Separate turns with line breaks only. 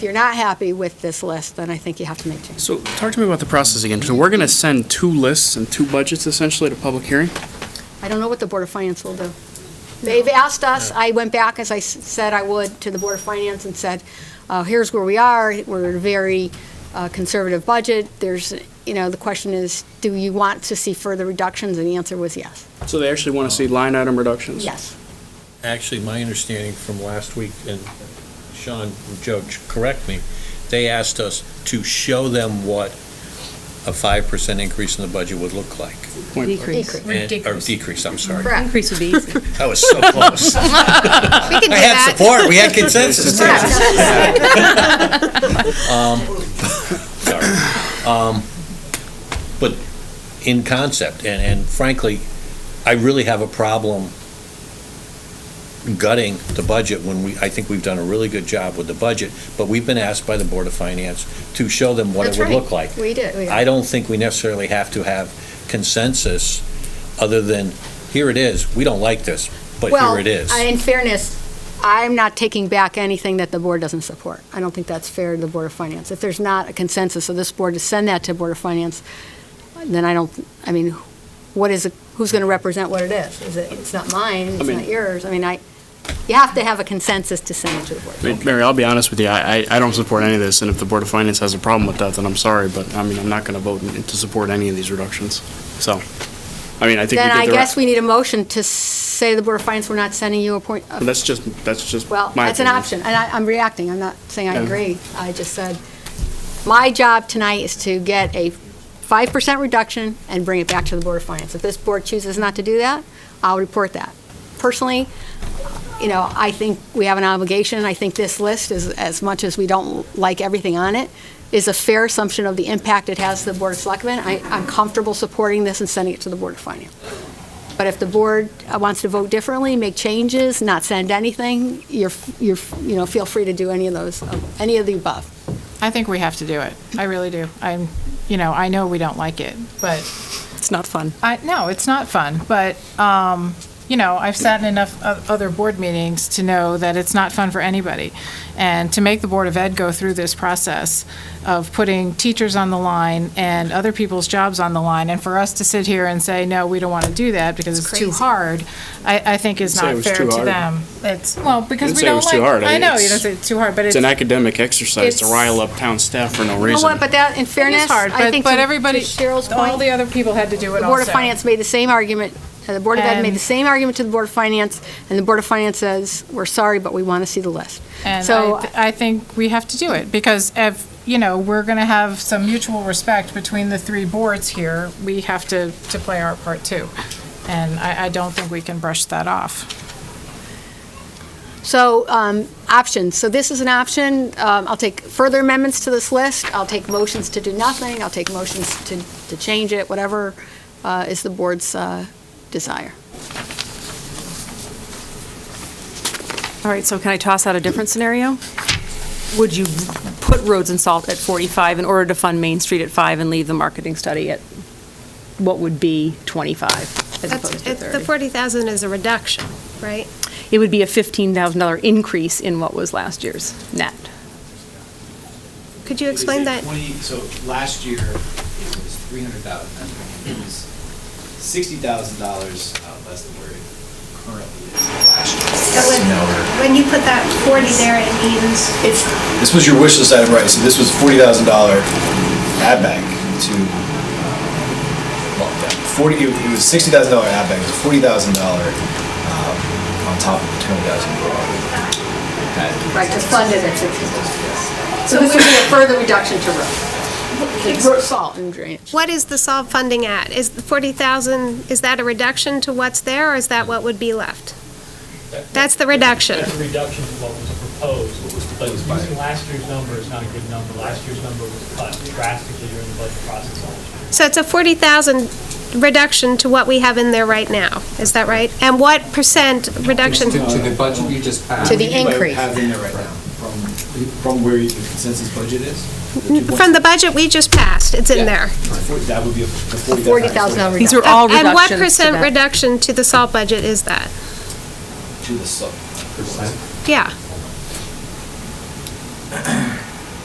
If you're not happy with this list, then I think you have to make changes.
So talk to me about the process again. So we're going to send two lists and two budgets essentially to public hearing?
I don't know what the Board of Finance will do. They've asked us, I went back, as I s- said I would, to the Board of Finance and said, uh, here's where we are, we're a very uh, conservative budget, there's, you know, the question is, do you want to see further reductions? And the answer was yes.
So they actually want to see line item reductions?
Yes.
Actually, my understanding from last week, and Sean, Judge, correct me, they asked us to show them what a five percent increase in the budget would look like.
Point-
Decrease.
And-
Ridiculous.
Or decrease, I'm sorry.
Correct.
Increase would be easy.
That was so close. I
We can do
had support, we had consensus. Sorry. Um, But in concept, and, and frankly, I really have a problem gutting the budget when we, I think we've done a really good job with the budget, but we've been asked by the Board of Finance to show them what it
That's
would
right.
look like.
We did, we did.
I don't think we necessarily have to have consensus, other than, here it is, we don't like this, but here it is.
Well, I- in fairness, I'm not taking back anything that the board doesn't support. I don't think that's fair to the Board of Finance. If there's not a consensus of this board to send that to Board of Finance, then I don't, I mean, what is, it- who's going to represent what it is? Is it, it's not mine, it's
mean-
not yours. I mean, I, you have to have a consensus to send it to the board.
I mean, Mary, I'll be honest with you, I, I- I don't support any of this, and if the Board of Finance has a problem with that, then I'm sorry, but I mean, I'm not going to vote in- to support any of these reductions. So, I mean, I think we
Then
did
I
the right.
guess we need a motion to say the Board of Finance, we're not sending you a point. a-
But That's just, that's just my
Well,
opinion.
that's an option, and I, I'm reacting, I'm not saying I
Yeah.
agree, I just said, my job tonight is to get a five percent reduction and bring it back to the Board of Finance. If this board chooses not to do that, I'll report that. Personally, you know, I think we have an obligation, I think this list is, as much as we don't like everything on it, is a fair assumption of the impact it has to the Board of Selectmen. I, I'm comfortable supporting this and sending it to the Board of Finance. But if the board uh, wants to vote differently, make changes, not send anything, you're, you're, you know, feel free to do any of those, uh, any of the above.
I think we have to do it. I really do. I'm, you know, I know we don't like it, but
It's not fun.
I, no, it's not fun. But, um, you know, I've sat in enough o- other board meetings to know that it's not fun for anybody. And to make the Board of Ed go through this process of putting teachers on the line and other people's jobs on the line, and for us to sit here and say, no, we don't want to do that because it's too hard, I, I think is
Didn't say it
not
was
fair
too
to
hard.
them. It's, well, because
Didn't
we
say it
don't
was
like.
too hard. I-
I know, you
it's-
don't say it's too hard, but it's.
It's an academic exercise to
It's-
rile up town staff for no reason.
Well, but that, in fairness,
hard,
I
but-
think to
but
to
everybody-
Cheryl's
All the
point,
other people had to do it
the
also.
Board of Finance made the same argument, uh, the Board of Ed made the
And-
same argument to the Board of Finance, and the Board of Finance says, we're sorry, but we want to see the list.
And
So-
I, th- I think we have to do it because if, you know, we're going to have some mutual respect between the three boards here, we have to, to play our part too. And I, I don't think we can brush that off.
So, um, options, so this is an option, um, I'll take further amendments to this list, I'll take motions to do nothing, I'll take motions to, to change it, whatever, uh, is the board's, uh, desire.
All right, so can I toss out a different scenario? Would you put roads and salt at 45 in order to fund Main Street at 5 and leave the marketing study at what would be 25 as opposed
That's,
to
it- the
30?
40,000 is a reduction, right?
It would be a $15,000 increase in what was last year's net.
Could you
It was
explain
a
that?
20 So last year, it was three hundred thousand, it was sixty thousand dollars uh, less than where it currently is last
So when,
year.
when you put that 40 there, it means it's
This was your wish list item, right, so this was forty thousand dollar add back to, uh, well, yeah, forty, it it was sixty thousand dollar add back, it was forty thousand dollar uh, on top of the twenty thousand we had.
Right, just fund it at fifty. So this would be a further reduction to road. Salt and drainage.
What is the solve funding at? Is the 40,000, is that a reduction to what's there, or is that what would be left? That's the reduction.
That's a reduction to what was proposed, what was proposed. Using last year's number is not a good number. Last year's number was cut drastically during the budget process.
So it's a 40,000 reduction to what we have in there right now, is that right? And what percent reduction?
To the budget you just passed.
To the increase.
Have in there right now, from, from where your consensus budget is?
Mm,
From the budget we just passed, it's in there.
That would be a forty thousand.
Forty thousand dollar
These
reduction.
are all
And what
reductions to
percent
that.
reduction to the salt budget is that?
To the sub.
Yeah.